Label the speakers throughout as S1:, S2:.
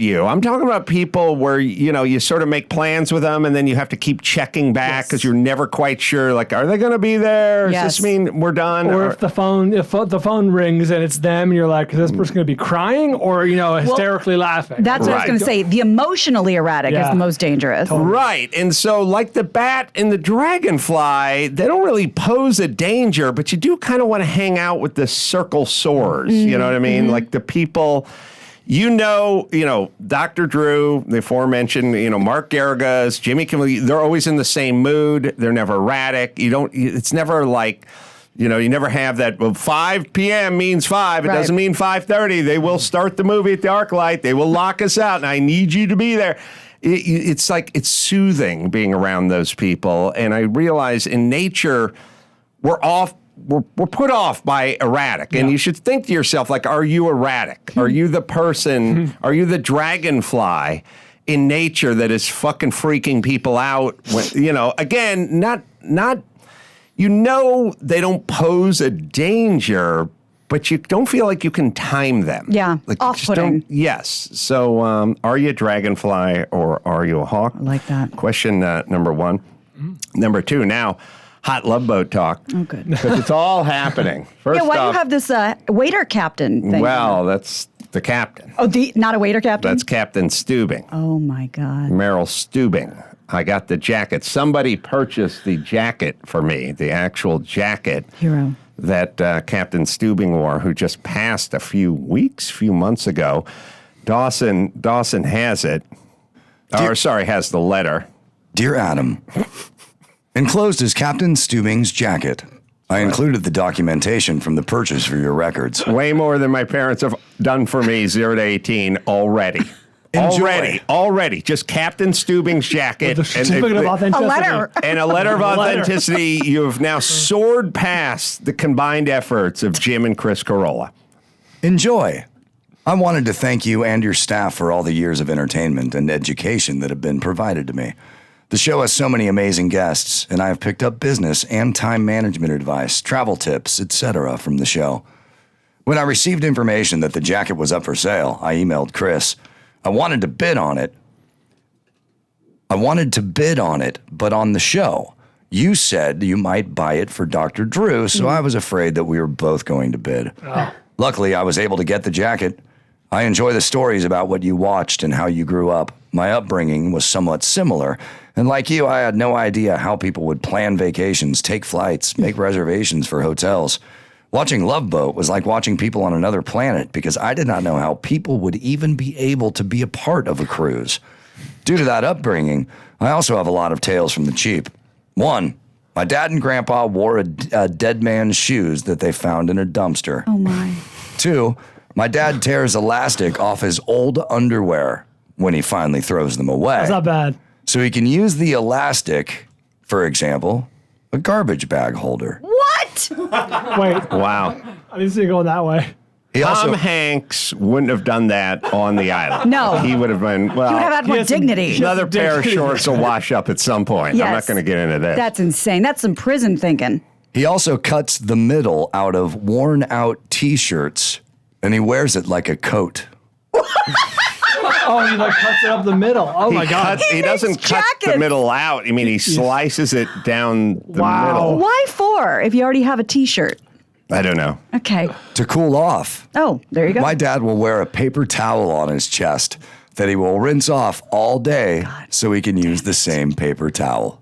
S1: you. I'm talking about people where you know you sort of make plans with them, and then you have to keep checking back because you're never quite sure. Like, are they going to be there? Does
S2: Yes.
S1: this mean we're done?
S3: Or if the phone if the phone rings and it's them, and you're like, is this person going to be crying or you know hysterically laughing?
S2: That's what I was
S1: Right.
S2: going to say. The emotionally erratic is
S3: Yeah.
S2: the most dangerous.
S1: Right. And so, like the bat and the dragonfly, they don't really pose a danger, but you do kind of want to hang out with the circle sores. You know what I mean? Like the people. You know, you know, Dr. Drew, the aforementioned, you know, Mark Garrigas, Jimmy Kimmel, they're always in the same mood. They're never erratic. You don't, it's never like, you know, you never have that, well, 5 p.m. means 5. It
S2: Right.
S1: doesn't mean 5.30. They will start the movie at the arc light. They will lock us out, and I need you to be there. It, it's like, it's soothing being around those people. And I realize in nature, we're off. We're, we're put off by erratic, and you should think to yourself, like, are you erratic?
S2: Hmm.
S1: Are you the person? Are you the dragonfly in nature that is fucking freaking people out? When, you know, again, not not you know they don't pose a danger, but you don't feel like you can time them.
S2: Yeah,
S1: like you just don't-
S2: off-putting.
S1: Yes. So, um, are you a dragonfly or are you a hawk? I
S2: like that.
S1: Question uh, number one. Number two. Now, hot love boat talk. Oh,
S2: good.
S1: Because it's all happening. First
S2: Yeah, why do you
S1: off,
S2: have this uh, waiter captain thing?
S1: well, that's the captain.
S2: oh, the not a waiter captain.
S1: That's Captain Steubing.
S2: oh my god.
S1: Meryl Steubing. I got the jacket. Somebody purchased the jacket for me, the actual jacket
S2: Hero.
S1: that uh, Captain Steubing wore, who just passed a few weeks, few months ago. Dawson Dawson has it, or sorry, has the letter.
S4: Dear Adam, enclosed is Captain Steubing's jacket. I included the documentation from the purchase for your records.
S1: Way more than my parents have done for me, zero to eighteen already.
S4: Enjoy.
S1: Already, already, just Captain Steubing's jacket
S3: the certificate of
S2: A
S3: authenticity.
S2: letter.
S1: and a letter of
S3: A letter.
S1: authenticity. You have now soared past the combined efforts of Jim and Chris Carolla.
S4: Enjoy. I wanted to thank you and your staff for all the years of entertainment and education that have been provided to me. The show has so many amazing guests, and I have picked up business and time management advice, travel tips, etc. from the show. When I received information that the jacket was up for sale, I emailed Chris. I wanted to bid on it. I wanted to bid on it, but on the show, you said you might buy it for Dr. Drew, so I was afraid that we were both going to bid. Luckily, I was able to get the jacket. I enjoy the stories about what you watched and how you grew up. My upbringing was somewhat similar, and like you, I had no idea how people would plan vacations, take flights, make reservations for hotels. Watching Love Boat was like watching people on another planet because I did not know how people would even be able to be a part of a cruise. Due to that upbringing, I also have a lot of tales from the cheap. One, my dad and grandpa wore a, a dead man's shoes that they found in a dumpster.
S2: Oh my.
S4: Two, my dad tears elastic off his old underwear when he finally throws them away.
S3: That's not bad.
S4: So he can use the elastic, for example, a garbage bag holder.
S1: Uh,
S2: What?
S3: Wait,
S1: Wow.
S3: I didn't see it going that way.
S4: He also
S1: Tom Hanks wouldn't have done that on the island.
S2: No.
S1: He would have been, well,
S2: You would have had more
S3: Yes, and-
S2: dignity.
S1: another pair of
S3: Dignity.
S1: shorts will wash up at some point. I'm not
S2: Yes.
S1: going to get into this.
S2: That's insane. That's some prison thinking.
S4: he also cuts the middle out of worn out t-shirts and he wears it like a coat.
S3: Oh, he like cuts it up the middle. Oh
S1: he
S3: my god.
S1: cuts- he,
S2: He
S1: doesn't
S2: makes
S1: cut the
S2: jackets.
S1: middle out. I mean, he slices it down the
S3: Wow.
S1: middle.
S2: Why for if you already have a T-shirt?
S1: I don't know.
S2: Okay.
S4: To cool off,
S2: Oh, there you go.
S4: my dad will wear a paper towel on his chest that he will rinse off all day so he can use the same paper towel.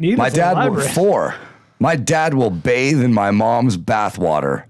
S3: Needless
S4: My
S3: in the
S4: dad will
S3: library.
S4: four. My dad will bathe in my mom's bathwater.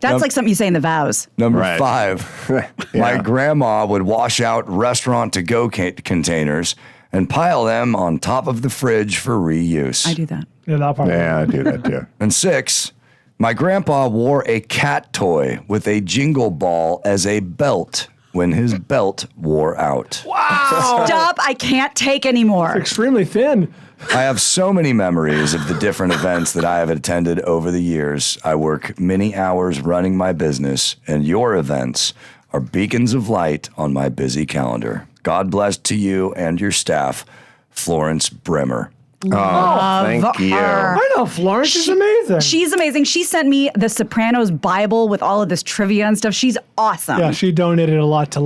S2: That's like something you say in the vows.
S4: Number
S1: Right.
S4: five,
S1: Yeah.
S4: my grandma would wash out restaurant to go ca- containers and pile them on top of the fridge for reuse.
S2: I do that.
S3: Yeah, that part.
S1: Yeah, I do that too.
S4: And six, my grandpa wore a cat toy with a jingle ball as a belt when his belt wore out.
S1: Oh.
S2: Stop! I can't take anymore.
S3: Extremely thin.
S4: I have so many memories of the different events that I have attended over the years. I work many hours running my business, and your events are beacons of light on my busy calendar. God bless to you and your staff, Florence Bremer.
S1: Thank you.
S2: her.
S3: I know Florence is amazing.
S2: She's amazing. She sent me the Sopranos Bible with all of this trivia and stuff. She's awesome.
S3: yeah, she donated a lot to